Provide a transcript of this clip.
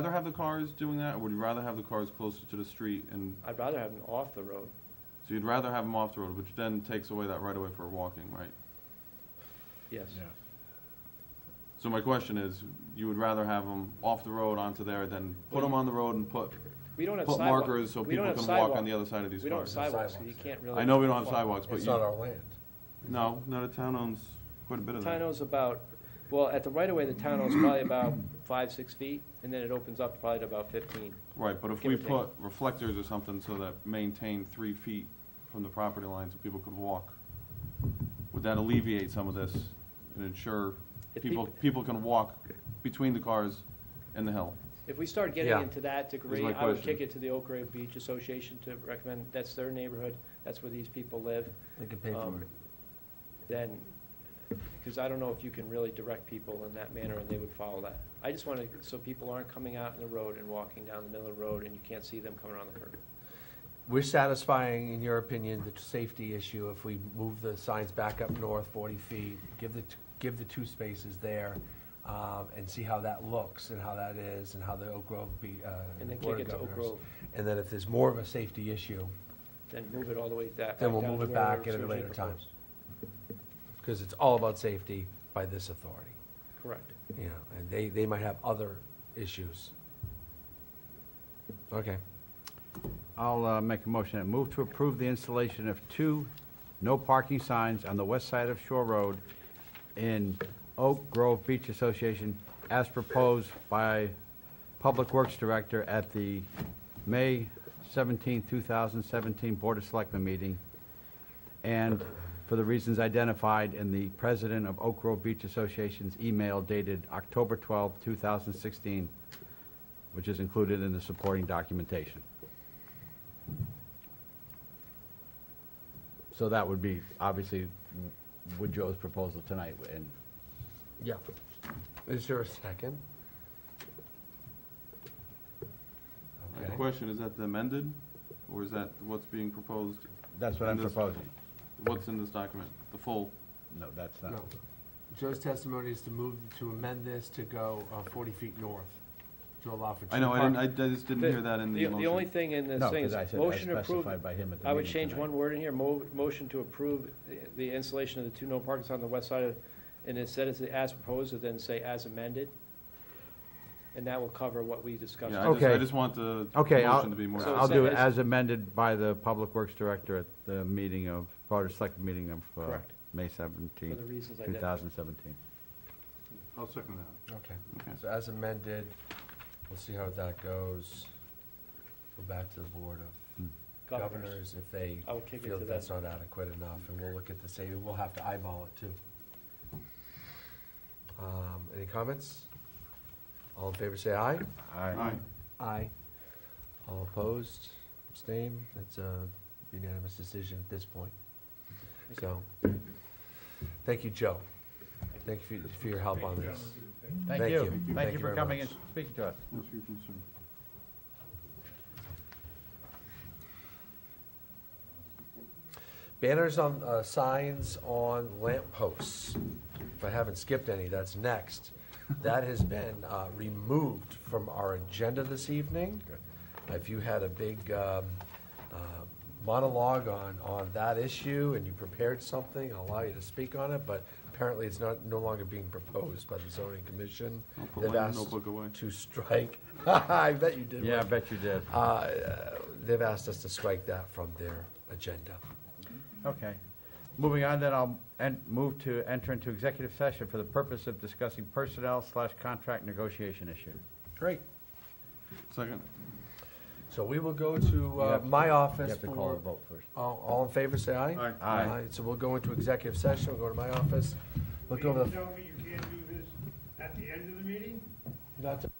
rather have the cars doing that, or would you rather have the cars closer to the street and, I'd rather have them off the road. so you'd rather have them off the road, which then takes away that right of way for walking, right? Yes. So my question is, you would rather have them off the road onto there than put them on the road and put, We don't have put sidewalk- markers so we don't people have can walk on sidewalk- the other side of these We don't have cars? sidewalks, so you Sidewalks, yeah. can't really. I know we don't have walk. sidewalks, but It's not you, our land. no, no, the town owns quite a bit The of Town that. owns about, well, at the right of way, the town owns probably about five, six feet, and then it opens up probably to about fifteen. Right, but if give we or take. put reflectors or something so that maintain three feet from the property line so people could walk, would that alleviate some of this and ensure If people, peop- people can walk between the cars and the hill? If we start getting Yeah. into that degree, my I would question. kick it to the Oak Grove Beach Association to recommend, that's their neighborhood, that's where these people live. They could pay um, for it. Then, because I don't know if you can really direct people in that manner, and they would follow that. I just want to, so people aren't coming out in the road and walking down the middle of the road, and you can't see them coming around the curve. We're satisfying, in your opinion, the safety issue if we move the signs back up north forty feet, give the, t- give the two spaces there, um, and see how that looks and how that is and how the Oak Grove be, uh. And then Board kick of it to Oak Governors. Grove, And then if there's more of a safety issue, then move it all the way that. Then we'll down move to it where back it's at a originally later time. proposed. because it's all about safety by this authority, Correct. you know, and they, they might have other issues. Okay. I'll uh, make a motion and move to approve the installation of two no parking signs on the west side of Shore Road in Oak Grove Beach Association as proposed by Public Works Director at the May 17, 2017 Board of Selectmen meeting and for the reasons identified in the President of Oak Grove Beach Association's email dated October 12, 2016, which is included in the supporting documentation. So that would be, obviously, with Joe's proposal tonight, and Yeah. Is there a second? My Okay. question, is that the amended, or is that what's being proposed, that's what I'm And this- proposing. what's in this document, the full? No, that's No. not. Joe's testimony is to move, to amend this to go uh, 40 feet north, to allow for two. I know, I didn't, I park- I just didn't hear that in the motion. The only thing in this No, thing 'cause is, I said as motion approved, specified by him at the I would meeting change tonight. one word in here, mo- motion to approve the- the installation of the two no parking signs on the west side of, and instead it's as proposed, and then say as amended. And that will cover what we discussed. Yeah, I just, I Okay. just want the Okay, I'll, motion to be more. So I'll do it it's- as amended by the Public Works Director at the meeting of, Board of Select meeting of, uh, Correct. May For 17, the reasons I did. 2017. I'll second that. Okay, Okay. so as amended, we'll see how that goes. Go back to the Board of Governors. Governors if they I will kick it feel to them. that that's not adequate enough, and we'll look at the same, we'll have to eyeball it too. Um, Any comments? All in favor, say aye. Aye. Aye. All opposed, abstain, that's a unanimous decision at this point. So, thank you, Joe. Thank you for- for your help on this. Thank Thank you. you. Thank Thank you you for very coming and much. speaking to us. What's your concern? Banners on, uh, signs on lamp posts. If I haven't skipped any, that's next. That has been, uh, removed from our agenda this evening. If you had a big, um, uh, monologue on, on that issue and you prepared something, I'll allow you to speak on it, but apparently it's not, no longer being proposed by the zoning commission. I'll put They've my asked notebook away. To strike, I bet you did. Yeah, I Mike. bet you did. Uh, Uh, they've asked us to strike that from their agenda. Okay. Moving on, then I'll en- move to enter into executive session for the purpose of discussing personnel slash contract negotiation issue. Great. Second? So we will go to You uh, have to- my You office have to call a for, vote first. all all in favor, say aye. Aye. Aye. So we'll go into executive session, we'll go to my office, look Can over you the, tell me you can't do this at the end of the meeting? not to